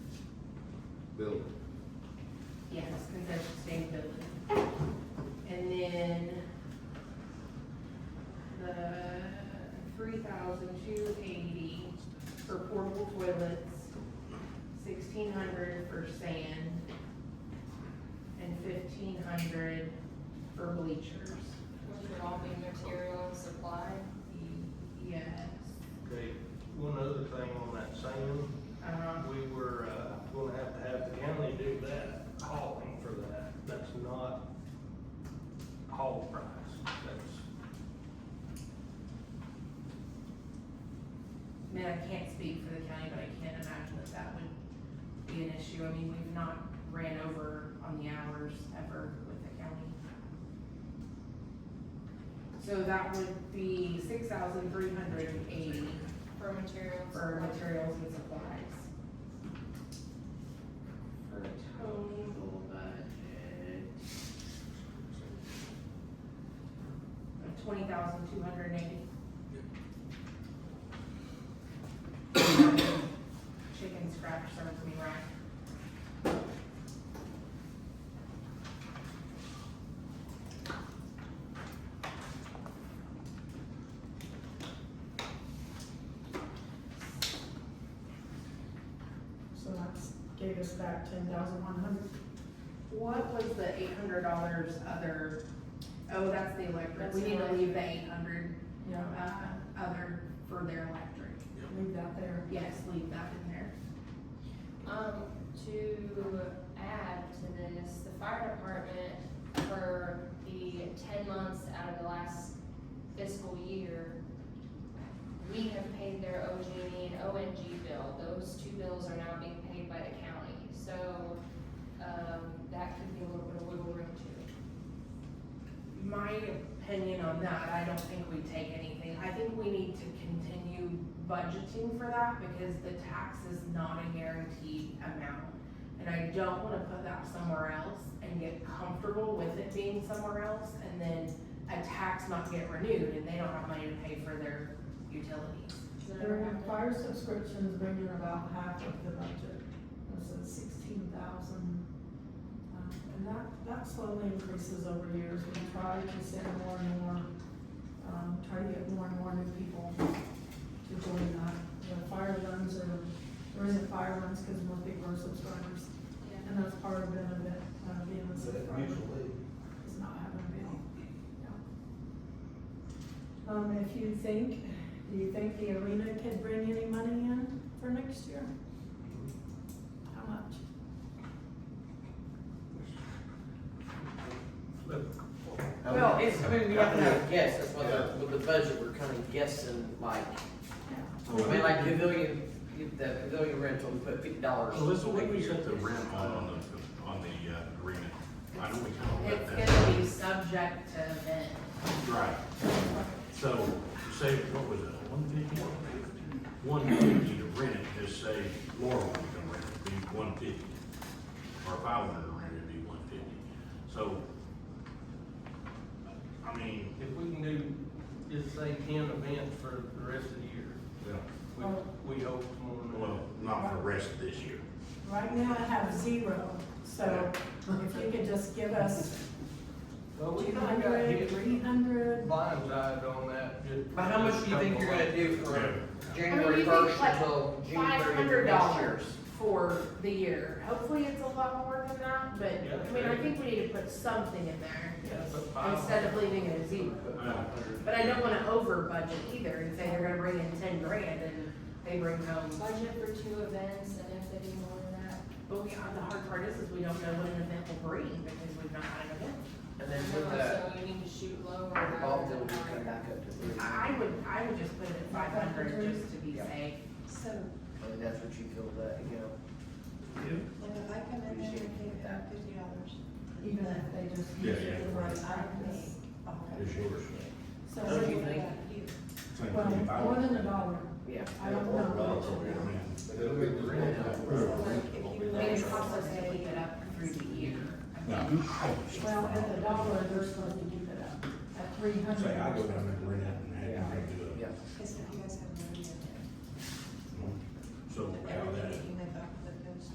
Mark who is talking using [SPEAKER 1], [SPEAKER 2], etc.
[SPEAKER 1] building.
[SPEAKER 2] Yes, because that's sustainability. And then the three thousand two eighty for portable toilets, sixteen hundred for sand, and fifteen hundred for bleachers.
[SPEAKER 3] Which would all be material and supply.
[SPEAKER 2] Yes,
[SPEAKER 4] Okay, one other thing on that sand,
[SPEAKER 2] um,
[SPEAKER 4] we were, uh, gonna have to have the county do that hauling for that. That's not haul price, that's,
[SPEAKER 2] I mean, I can't speak for the county, but I can't imagine that that would be an issue. I mean, we've not ran over on the hours ever with the county. So that would be six thousand three hundred and eighty
[SPEAKER 3] For material. and
[SPEAKER 2] for
[SPEAKER 3] supply.
[SPEAKER 2] materials and supplies. For a total budget of twenty thousand two hundred and eighty. Chicken scratch serves me right.
[SPEAKER 5] So that's, gave us back ten thousand one hundred.
[SPEAKER 2] What was the eight hundred dollars other, oh, that's the electric,
[SPEAKER 5] That's
[SPEAKER 2] we need to
[SPEAKER 5] electric.
[SPEAKER 2] leave the eight hundred,
[SPEAKER 5] Yeah,
[SPEAKER 2] uh, other for their electric.
[SPEAKER 5] leave that there.
[SPEAKER 2] Yes, leave that in there.
[SPEAKER 3] Um, to add to this, the fire department for the ten months out of the last fiscal year, we have paid their OG&E and ONG bill. Those two bills are now being paid by the county. So, um, that could be a little bit of wiggle room too.
[SPEAKER 2] My opinion on that, I don't think we take anything, I think we need to continue budgeting for that because the tax is not a guaranteed amount. And I don't wanna put that somewhere else and get comfortable with it being somewhere else and then a tax not get renewed and they don't have money to pay for their utilities.
[SPEAKER 5] Their fire subscriptions bring in about half of the budget, that's at sixteen thousand. Uh, And that, that slowly increases over years, we try to send more and more, um, try to get more and more new people to join that. The fire runs are, there isn't fire runs because more people are subscribers,
[SPEAKER 3] Yeah.
[SPEAKER 5] and that's part of the benefit of being a subscriber. is not having a bill. Yeah. Um, if you think, do you think the arena could bring any money in for next year? How much?
[SPEAKER 4] but
[SPEAKER 6] Well, it's, I mean, we have to have a guess, that's why the, with the budget, we're kind of guessing, like, I mean, like pavilion, the pavilion rental, we put fifty dollars.
[SPEAKER 7] Alyssa, what do we set the rent on, on the, on the uh, agreement? I know we kind of
[SPEAKER 2] It's
[SPEAKER 7] let that.
[SPEAKER 2] gonna be subject to event.
[SPEAKER 7] Right. So, you say, what was it, one fifty? One fifty to rent it, just say Laurel would come rent it, it'd be one fifty. Or if I wanted to rent it, it'd be one fifty. So, I mean,
[SPEAKER 4] if we can do, just say ten events for the rest of the year, we, we hope more than
[SPEAKER 7] well, not for the rest of this year.
[SPEAKER 5] Right now I have zero, so if you could just give us
[SPEAKER 4] Well, we
[SPEAKER 5] two
[SPEAKER 4] kinda got
[SPEAKER 5] hundred,
[SPEAKER 4] hit
[SPEAKER 5] three hundred,
[SPEAKER 4] blindsided on that, just.
[SPEAKER 6] But how much do you think you're gonna do
[SPEAKER 7] Yeah.
[SPEAKER 6] for January first until June
[SPEAKER 2] Five
[SPEAKER 6] thirtieth
[SPEAKER 2] hundred
[SPEAKER 6] next
[SPEAKER 2] dollars
[SPEAKER 6] year's?
[SPEAKER 2] for the year. Hopefully it's a lot more than that, but,
[SPEAKER 4] Yeah.
[SPEAKER 2] I mean, I think we need to put something in there
[SPEAKER 4] Yeah, but five.
[SPEAKER 2] instead of leaving it at zero. But I don't wanna over budget either and say they're gonna bring in ten grand and they bring home.
[SPEAKER 3] Budget for two events and if they do more than that,
[SPEAKER 2] But we, the hard part is, is we don't know what an event will bring because we've not had an event.
[SPEAKER 6] And then with the,
[SPEAKER 3] So you need to shoot lower.
[SPEAKER 6] the ball, then we
[SPEAKER 3] rather than higher.
[SPEAKER 6] come back up to three.
[SPEAKER 2] I I would, I would just put it at five hundred just to be
[SPEAKER 6] Yeah.
[SPEAKER 2] safe.
[SPEAKER 8] So,
[SPEAKER 6] And that's what you feel that, you know.
[SPEAKER 8] like, if I come in there and pay about fifty dollars,
[SPEAKER 5] even if they just
[SPEAKER 7] Yeah,
[SPEAKER 5] use it
[SPEAKER 7] yeah.
[SPEAKER 5] the
[SPEAKER 8] I
[SPEAKER 5] right
[SPEAKER 8] can make
[SPEAKER 5] practice.
[SPEAKER 8] a hundred.
[SPEAKER 7] It's yours.
[SPEAKER 5] So,
[SPEAKER 8] So,
[SPEAKER 6] Don't you
[SPEAKER 8] what
[SPEAKER 6] think-
[SPEAKER 8] about you?
[SPEAKER 5] well, more than a dollar,
[SPEAKER 6] Yeah.
[SPEAKER 5] I don't know.
[SPEAKER 7] I mean,
[SPEAKER 1] It'll be the rent.
[SPEAKER 8] So, like,
[SPEAKER 2] I
[SPEAKER 8] if you
[SPEAKER 2] mean, it
[SPEAKER 8] really
[SPEAKER 2] costs
[SPEAKER 8] want
[SPEAKER 2] us
[SPEAKER 8] to
[SPEAKER 2] to keep
[SPEAKER 8] pay,
[SPEAKER 2] it up through the year.
[SPEAKER 5] Well, at the dollar, they're supposed to keep it up, at three hundred.
[SPEAKER 1] Say, I go down there and rent it and have
[SPEAKER 6] Yeah.
[SPEAKER 1] them do it.
[SPEAKER 6] Yeah.
[SPEAKER 8] because if you guys have